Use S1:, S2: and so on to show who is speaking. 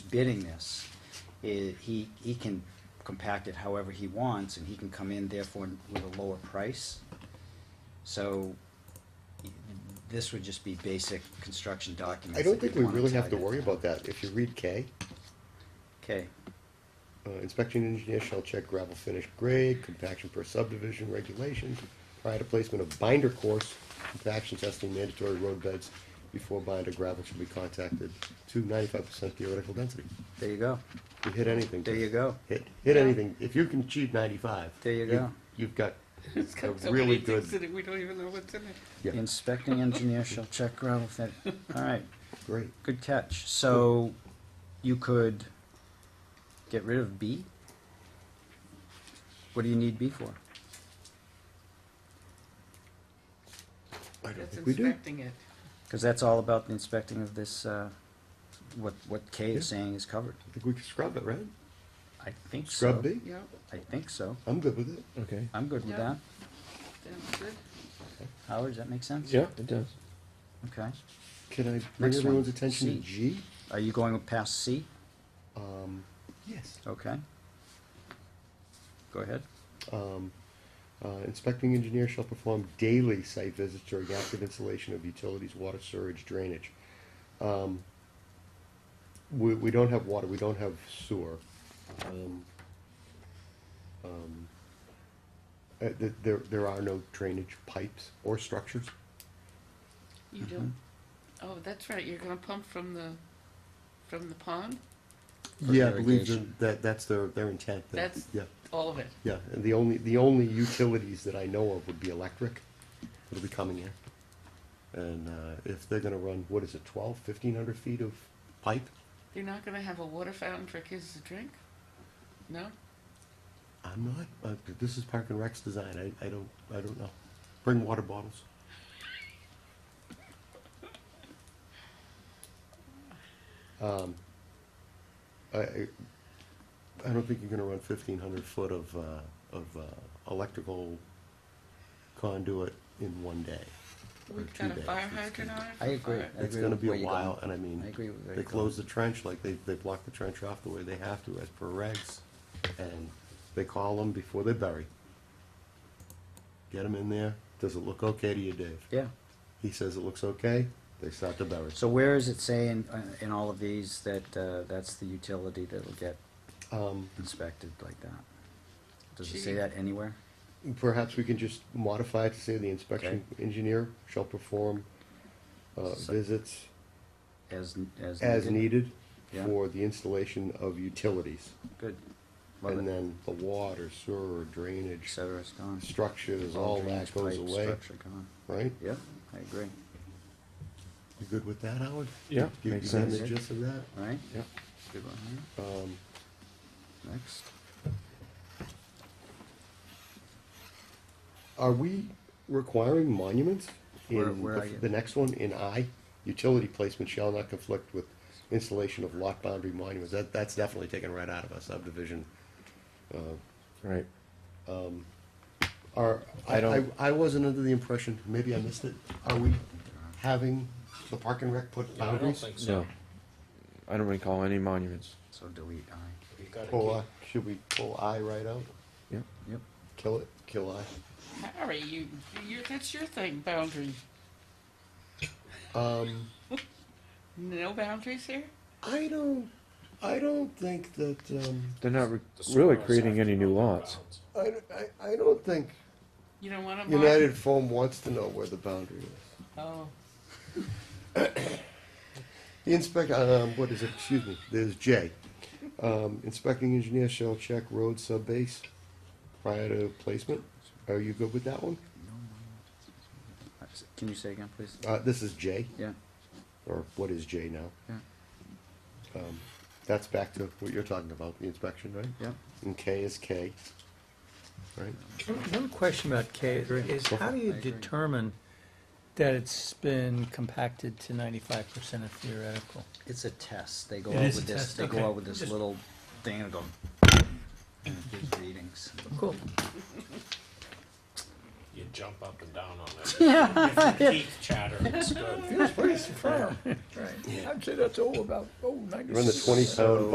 S1: bidding this, i he, he can compact it however he wants, and he can come in therefore with a lower price. So, this would just be basic construction documents.
S2: I don't
S1: that
S2: think
S1: you'd
S2: we
S1: wanna
S2: really have
S1: tie
S2: to
S1: that
S2: worry
S1: down.
S2: about that. If you read K,
S1: Okay,
S2: uh, inspection engineer shall check gravel finish grade, compaction per subdivision regulations, prior to placement of binder course, compaction testing mandatory road beds before binder gravel should be contacted to ninety-five percent theoretical density.
S1: there you go,
S2: You hit anything.
S1: there you go,
S2: Hit, hit anything. If you can achieve ninety-five.
S1: There you
S2: you've-
S1: go.
S2: You've got
S3: It's
S2: a
S3: got so
S2: really
S3: many things in
S2: good,
S3: it, we don't even know what's in it.
S2: yeah,
S1: inspecting engineer shall check gravel fin, alright,
S2: great.
S1: good catch, so, you could get rid of B? What do you need B for?
S2: I don't
S3: It's
S2: think we do.
S3: inspecting it.
S1: Because that's all about the inspecting of this, uh, what, what Kay is
S2: Yeah.
S1: saying is covered.
S2: I think we can scrub it, right?
S1: I think so.
S2: Scrub B?
S3: Yep,
S1: I think so.
S2: I'm good with it.
S4: Okay.
S1: I'm good with
S3: Yeah.
S1: that.
S3: that's good.
S1: Howard, does that make sense?
S4: Yeah, it does.
S1: Okay.
S2: Can I bring
S1: Next one.
S2: everyone's attention to
S1: C.
S2: G?
S1: Are you going past C?
S2: Um, yes.
S1: Okay. Go ahead.
S2: Um, uh, inspecting engineer shall perform daily site visits during active installation of utilities, water, sewage, drainage. Um, we, we don't have water, we don't have sewer. Um, um, uh, th- there, there are no drainage pipes or structures.
S3: You do. Mm-hmm. Oh, that's right, you're gonna pump from the, from the pond,
S1: For
S2: Yeah, I believe
S1: irrigation.
S2: that, that, that's their, their intent. that-
S3: That's-
S2: Yeah,
S3: all of it.
S2: yeah, and the only, the only utilities that I know of would be electric, that'll be coming in. And, uh, if they're gonna run, what is it, twelve, fifteen hundred feet of pipe?
S3: You're not gonna have a water fountain for kids to drink? No?
S2: I'm not, uh, this is Park and Rec's design, I, I don't, I don't know. Bring water bottles. Um, I, I I don't think you're gonna run fifteen hundred foot of, uh, of, uh, electrical conduit in one day. or
S3: We've
S2: two
S3: got a
S2: days.
S3: fire
S2: It's
S3: hydrant
S2: gonna-
S3: on it?
S1: I agree.
S3: Fire-
S1: I
S2: It's
S1: agree
S2: gonna
S1: with
S2: be
S1: where
S2: a
S1: you're
S2: while,
S1: going.
S2: and I mean.
S1: I agree with where
S2: They
S1: you're going.
S2: close the trench, like they, they block the trench off the way they have to as per regs, and they call them before they bury. Get them in there, does it look okay to you, Dave?
S1: Yeah.
S2: He says it looks okay, they start to bury.
S1: So where is it saying uh, in all of these that, uh, that's the utility that'll get
S2: Um,
S1: inspected like that? Does it say
S3: Gee.
S1: that anywhere?
S2: perhaps we can just modify it to say the inspection engineer shall perform, uh,
S1: So-
S2: visits
S1: As, as.
S2: as needed
S1: Yeah.
S2: for the installation of utilities.
S1: Good. Love
S2: And
S1: it.
S2: then the water, sewer,
S1: Et
S2: drainage,
S1: cetera, it's gone.
S2: structures, all
S1: drainage
S2: that goes
S1: pipe
S2: away,
S1: structure gone.
S2: right?
S1: Yep, I agree.
S2: You good with that, Howard?
S4: Yeah,
S2: You, you
S4: makes
S2: got the
S1: sense.
S2: gist of that?
S1: All right?
S4: Yep.
S1: Good one here.
S2: Um,
S1: Next.
S2: are we requiring monuments
S1: Where-
S2: in
S1: where
S2: the,
S1: are you?
S2: the next one in I? Utility placement shall not conflict with installation of lot boundary monuments. That, that's definitely taken right out of a subdivision.
S4: Right.
S2: Are, I,
S4: I don't-
S2: I, I wasn't under the impression, maybe I missed it, are we having the park and rec put
S5: Yeah, I don't
S2: boundaries?
S5: think so.
S4: No. I don't recall any monuments.
S1: So delete I.
S5: You gotta
S2: Pull,
S5: keep,
S2: uh, should we pull I right out?
S4: Yep.
S1: Yep.
S2: Kill it, kill I?
S3: Harry, you, you, that's your thing, boundary.
S2: Um,
S3: No boundaries here?
S2: I don't, I don't think that, um,
S4: They're not re-
S5: the
S4: really
S5: Sonoras
S4: creating
S5: have
S4: any
S5: to
S4: new
S5: know their
S4: lots.
S5: bounds.
S2: I, I, I don't think
S3: You don't want to.
S2: United Foam wants to know where the boundary is.
S3: Oh,
S2: The inspect, um, what is it, excuse me, there's J. Um, inspecting engineer shall check road subbase prior to placement. Are you good with that one?
S1: Can you say again, please?
S2: Uh, this is J,
S1: Yeah,
S2: or what is J now?
S1: yeah,
S2: Um, that's back to what you're talking about, the inspection, right?
S1: yeah.
S2: And K is K, right?
S6: One question about K
S1: agree.
S6: is how do you
S1: I agree.
S6: determine that it's been compacted to ninety-five percent of theoretical?
S1: It's a test. They go
S6: It
S1: out
S6: is
S1: with
S6: a
S1: this,
S6: test,
S1: they go
S6: okay.
S1: out with this
S6: Just-
S1: little thing and go. and it gives readings.
S6: Cool.
S5: you jump up and down on it. Yeah. Teeth chatter, it's good.
S1: Right.
S6: I'd say that's all about, oh,
S2: Run the twenty pound